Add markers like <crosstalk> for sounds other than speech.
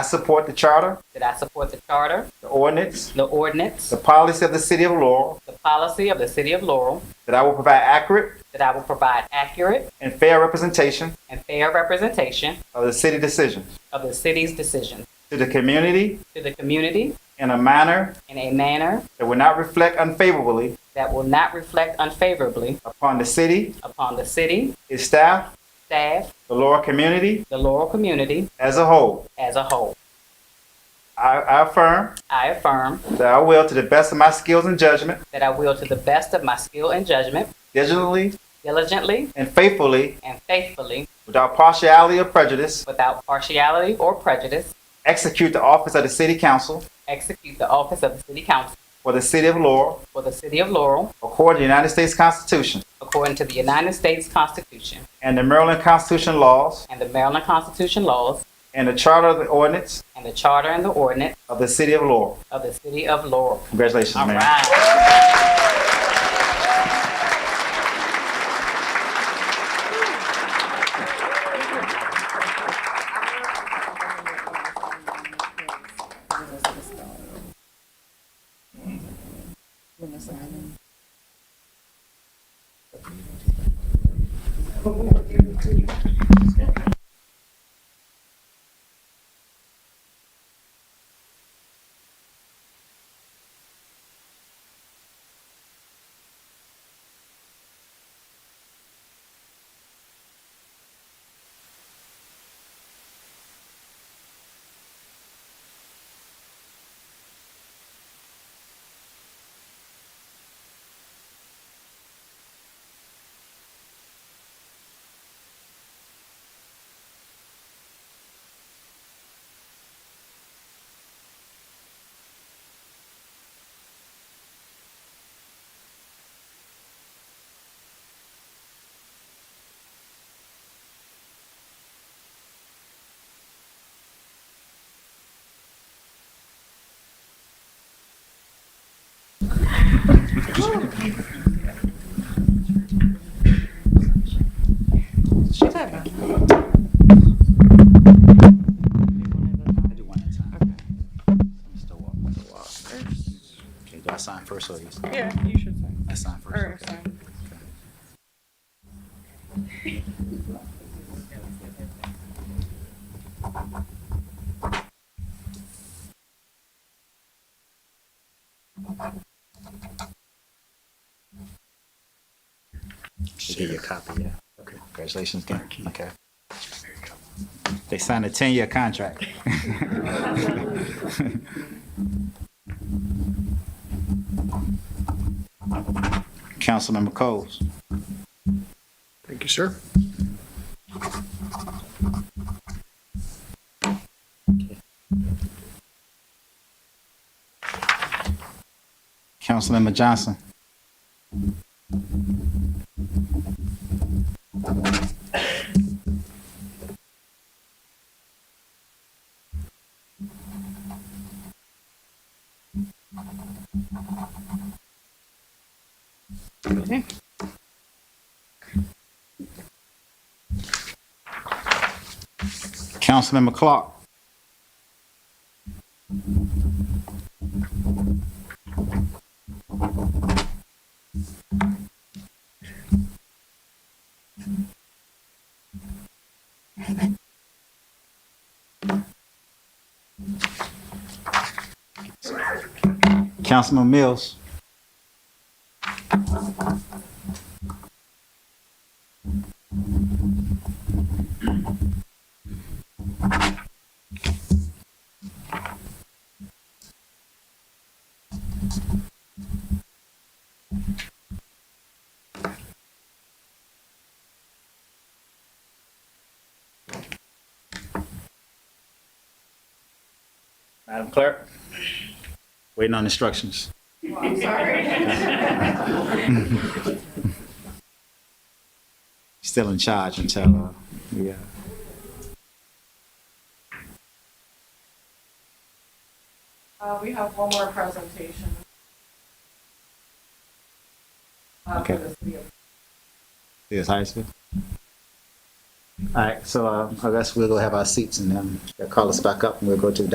I support the charter, that I support the charter, the ordinance, the ordinance, the policy of the city of Laurel, the policy of the city of Laurel, that I will provide accurate that I will provide accurate and fair representation and fair representation of the city decision of the city's decisions to the community to the community in a manner in a manner that will not reflect unfavorably that will not reflect unfavorably upon the city, upon the city, its staff, staff, the Laurel community the Laurel community as a whole. as a whole. I, I affirm I affirm that I will, to the best of my skills and judgment, that I will, to the best of my skill and judgment, diligently diligently and faithfully, and faithfully, without partiality or prejudice, without partiality or prejudice, execute the office of the city council execute the office of the city council for the city of Laurel for the city of Laurel according to the United States Constitution according to the United States Constitution and the Maryland Constitution laws and the Maryland Constitution laws and the charter of the ordinance and the charter and the ordinance of the city of Laurel. of the city of Laurel. Congratulations, All Mayor. right. Okay, do I sign first or you? Yeah, you should say. I sign first. Or okay. sign. They give you a copy, yeah. Okay. Congratulations, Dan. Okay. They signed a ten-year contract. <laughs> Councilmember Coles. Thank you, sir. Councilmember Johnson. Councilmember Clark. Councilman Mills. Madam Clerk. Waiting on instructions. Still in charge until, uh, yeah. Uh, we have one more presentation. Uh, Okay. for Uh, the city of- This high school? um, All right, so uh, I guess we'll go have our seats and then they'll call us back up and we'll go to the